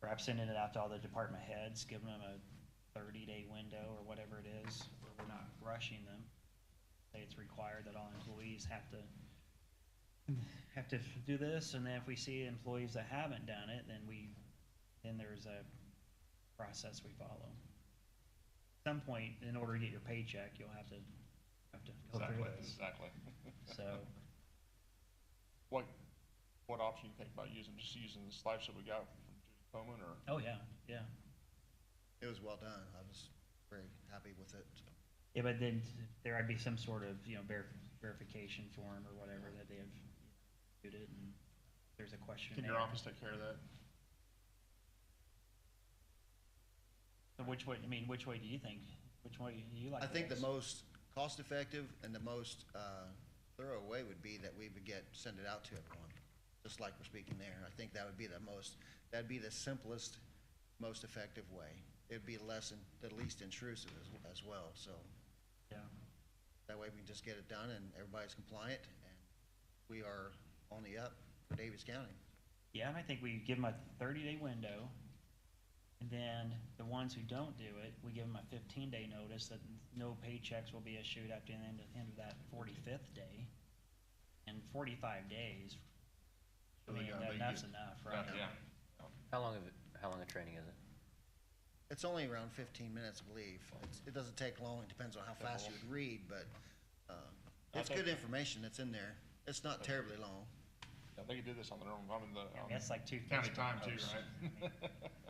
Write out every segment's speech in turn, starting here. perhaps sending it out to all the department heads, giving them a thirty-day window or whatever it is, where we're not rushing them. Say it's required that all employees have to, have to do this, and then if we see employees that haven't done it, then we, then there's a process we follow. At some point, in order to get your paycheck, you'll have to, have to go Exactly, through this, exactly. so. What, what option you think about using, just using the slides that we got from Judy Coleman or? Oh, yeah, yeah. It was well done. I was very happy with it. Yeah, but then there would be some sort of, you know, ver- verification form or whatever that they have viewed it and there's a question. Can your office take care of that? So which way, I mean, which way do you think? Which way do you like? I think the best? most cost-effective and the most uh, thorough way would be that we would get, send it out to everyone, just like we're speaking there. I think that would be the most, that'd be the simplest, most effective way. It'd be less, in- the least intrusive as, as well, so Yeah, that way we can just get it done and everybody's compliant and we are only up for Davis County. Yeah, and I think we give them a thirty day window. And then the ones who don't do it, we give them a fifteen day notice that no paychecks will be issued after the end of, end of that forty-fifth day. And forty-five days, I So they mean, got- that- they that's get- enough, right? Yeah. How long of it, how long a training is it? It's only around fifteen minutes, I believe. It's, it doesn't take long. It depends on how fast you would read, but, um, it's Okay. good information that's in there. It's not terribly long. Yeah, they could do this on their own, I'm in the. Yeah, on That's like two. County time too, right?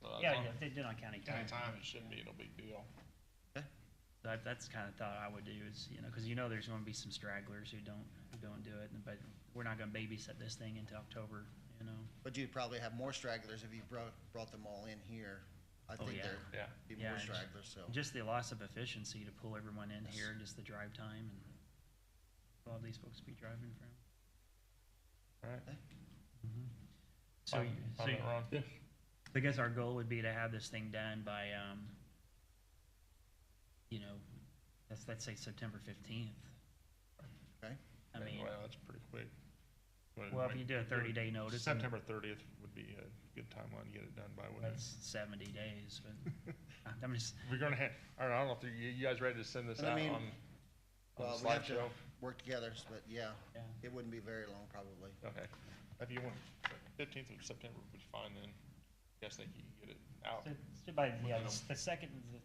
So as Yeah, long- yeah, they did on county time. County time, it shouldn't be no big deal. That, that's the kind of thought I would do is, you know, because you know there's going to be some stragglers who don't, who don't do it, but we're not going to babysit this thing into October, you know? But you'd probably have more stragglers if you brought, brought them all in here. I Oh, think yeah. there'd Yeah. be Yeah, more and- stragglers, so. Just the loss of efficiency to pull everyone in here and just the drive time and all these folks be driving from. Alright. So, you- so you- Yeah. I guess our goal would be to have this thing done by, um, you know, let's, let's say September fifteenth. Okay. I mean, Well, that's pretty quick. But well, if wait, you do a do it thirty day notice. then- September thirtieth would be a good timeline to get it done by, wouldn't it? That's seventy days, but I'm just, We're gonna have, all right, I don't know if you, you guys ready to send this And I out on, mean, on the Well, we have to slideshow? work together, but yeah, yeah, it wouldn't be very long probably. Okay, if you want, fifteenth of September would be fine then, guess they can get it out. So it's by, yeah, the- the second, the-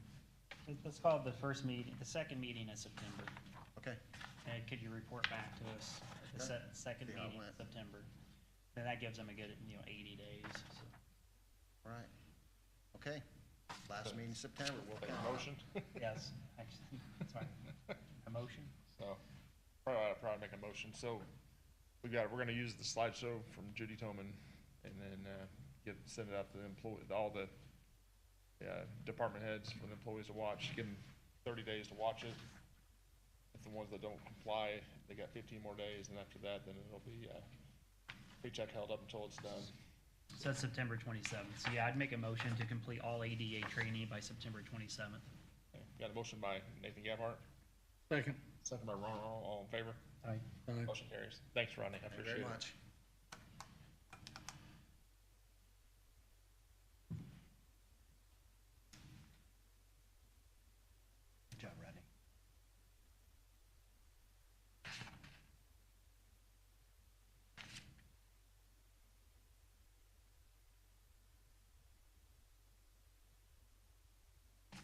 let's call it the first meeting, the second meeting in September. Okay, And could you report back to us at the se- second Yeah, I meeting in went. September? Then that gives them a good, you know, eighty days, so. all right. Okay, last So- meeting in September, we'll. Take plan a on it. motion, Yes, actually, sorry, a motion? so, probably, I'll probably make a motion, so, we got, we're gonna use the slideshow from Judy Toman, and then, uh, get, send it out to the employee, all the, uh, department heads for the employees to watch, give them thirty days to watch it. If the ones that don't comply, they got fifteen more days, and after that, then it'll be, uh, paycheck held up until it's done. So that's September twenty-seventh, so yeah, I'd make a motion to complete all ADA training by September twenty-seventh. Okay, Got a motion by Nathan Gabhart, Second. second by Ron Aron, all in favor? Aye. Aye. Motion carries. Thanks, Rodney, I Thank you appreciate it. very much. Good job, Rodney.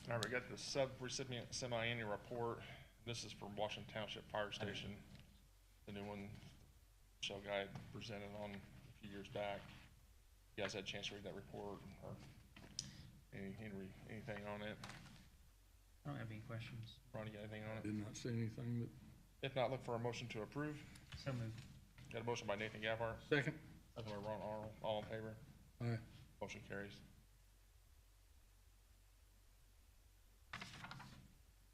All right, we got the sub-recipient semi-annual report. This is from Washington Township Fire Station. The new one Michelle Guy presented on a few years back. You guys had a chance to read that report or any, any, re- anything on it? I don't have any questions. Ronnie, got anything on it? Did not see anything, If not, look for a motion to approve. So moved. Got a motion by Nathan Gabhart, but second. second by Ron Arnold, all in favor? Aye. Motion carries.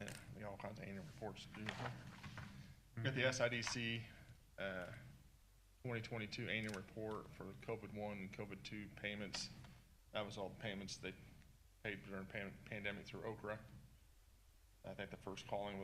Yeah, we all kinds of annual reports to do. Got the SIDC, uh, twenty twenty-two annual report for COVID one and COVID two payments. That was all the payments they paid during pan- pandemic through Okra. I think the first calling was.